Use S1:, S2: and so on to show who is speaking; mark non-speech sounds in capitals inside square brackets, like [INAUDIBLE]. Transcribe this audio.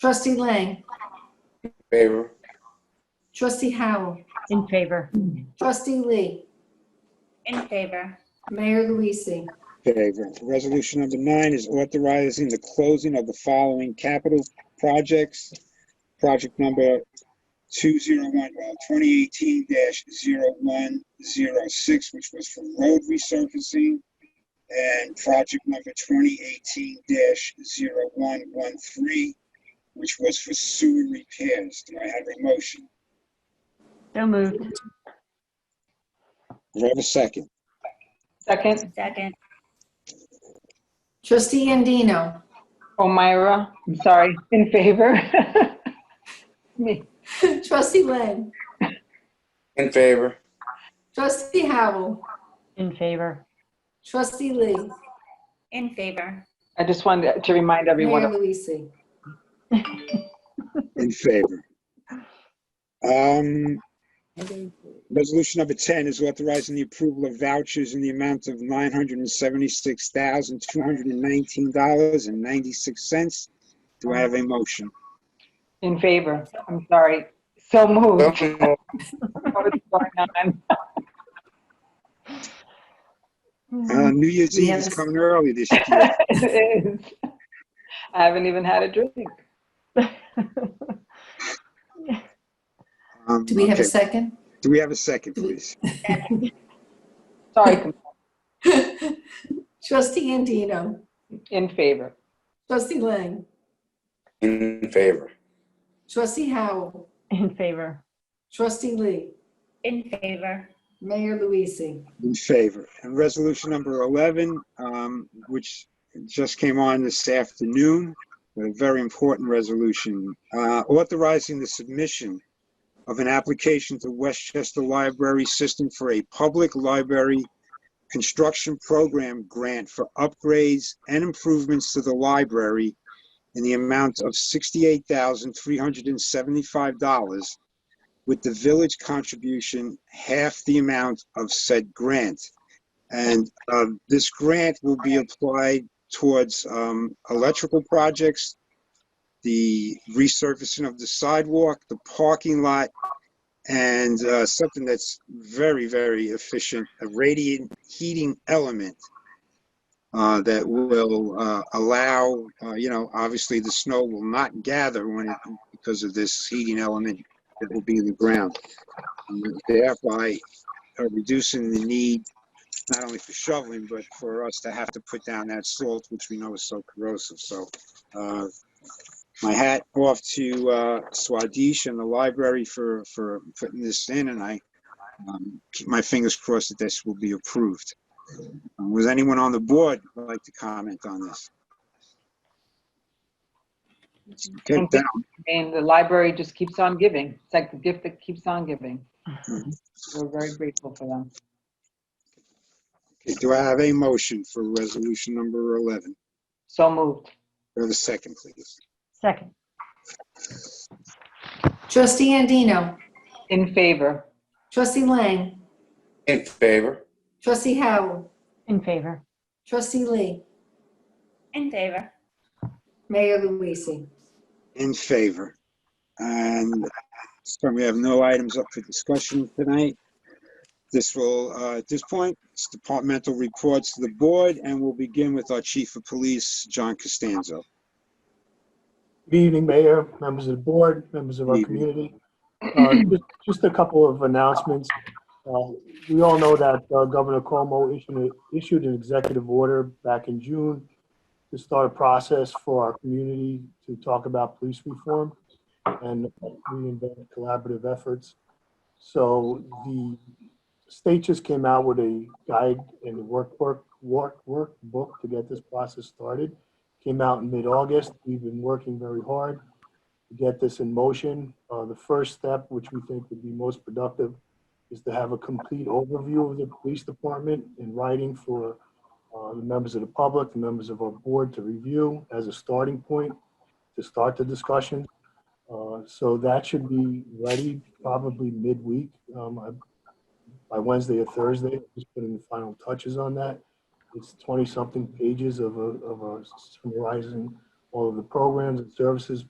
S1: Trustee Lang,
S2: favor,
S1: trustee Howell,
S3: In favor.
S1: trustee Lee,
S4: In favor.
S1: Mayor Luise.
S5: Favor. Resolution number nine is authorizing the closing of the following capital projects. Project number 201, well, 2018-0106, which was for road resurfacing, and project number 2018-0113, which was for sewer repairs. Do I have a motion?
S3: So moved.
S5: Do I have a second?
S6: Second,
S4: Second.
S1: Trustee Andino, [LAUGHS]
S6: O'Meara, I'm sorry, in favor. [LAUGHS] Me,
S1: trustee Lang,
S2: in favor,
S1: trustee Howell,
S3: In favor.
S1: trustee Lee,
S4: In favor.
S6: I just wanted to remind everyone
S1: Mayor
S6: of
S1: Luise.
S5: In favor. Um, Resolution number 10 is authorizing the approval of vouchers in the amount of $976,219.96. Do I have a motion?
S6: in favor. I'm sorry. So
S2: Don't
S6: moved.
S2: move.
S6: [LAUGHS] What is going on? [LAUGHS]
S5: Uh, New Year's Eve is
S1: Yes.
S5: coming early this year.
S6: It is. I haven't even had a drink.
S1: [LAUGHS]
S5: Um,
S1: Do we have a
S5: okay.
S1: second?
S5: Do we have a second, please?
S6: Sorry, com-
S1: Trustee Andino,
S6: in favor.
S1: trustee Lang,
S2: in favor,
S1: trustee Howell,
S3: [LAUGHS] In favor.
S1: trustee Lee,
S4: In favor.
S1: Mayor Luise.
S5: In favor. And resolution number 11, um, which just came on this afternoon, a very important resolution, uh, authorizing the submission of an application to Westchester Library System for a public library construction program grant for upgrades and improvements to the library in the amount of $68,375 with the village contribution half the amount of said grant. And um, this grant will be applied towards um, electrical projects, the resurfacing of the sidewalk, the parking lot, and uh, something that's very, very efficient, a radiant heating element uh, that will uh, allow, uh, you know, obviously the snow will not gather when it, because of this heating element that will be in the ground. and Thereby uh, reducing the need, not only for shoveling, but for us to have to put down that salt, which we know is so corrosive. So uh, my hat off to uh, Swadesh and the library for, for putting this in, and I um, keep my fingers crossed that this will be approved. Um, Was anyone on the board who'd like to comment on this? Okay,
S6: Thank you.
S5: down.
S6: And the library just keeps on giving. It's like the gift that keeps on giving. We're very grateful for them.
S5: Okay, Do I have a motion for resolution number 11?
S6: So moved.
S5: Do I have a second, please?
S3: Second.
S1: Trustee Andino,
S6: In favor.
S1: trustee Lang,
S2: in favor,
S1: trustee Howell,
S3: In favor.
S1: trustee Lee,
S4: In favor.
S1: Mayor Luise.
S5: In favor. And so we have no items up for discussion tonight. This will, uh, at this point, it's departmental reports to the board, and we'll begin with our chief of police, John Costanzo.
S7: Good evening, Mayor, members of the board, members of our
S5: Good
S7: community. Uh, just- Just a couple of announcements. Uh, We all know that uh, Governor Cuomo issued a- issued an executive order back in June to start a process for our community to talk about police reform and reinvent collaborative efforts. So the state just came out with a guide and workbook, work, workbook to get this process started came out in mid-August. We've been working very hard to get this in motion. Uh, The first step, which we think would be most productive, is to have a complete overview of the police department in writing for uh, the members of the public, the members of our board to review as a starting point to start the discussion. Uh, So that should be ready probably midweek, um, I- by Wednesday or Thursday, just putting the final touches on that it's 20-something pages of a, of a summarizing all of the programs and services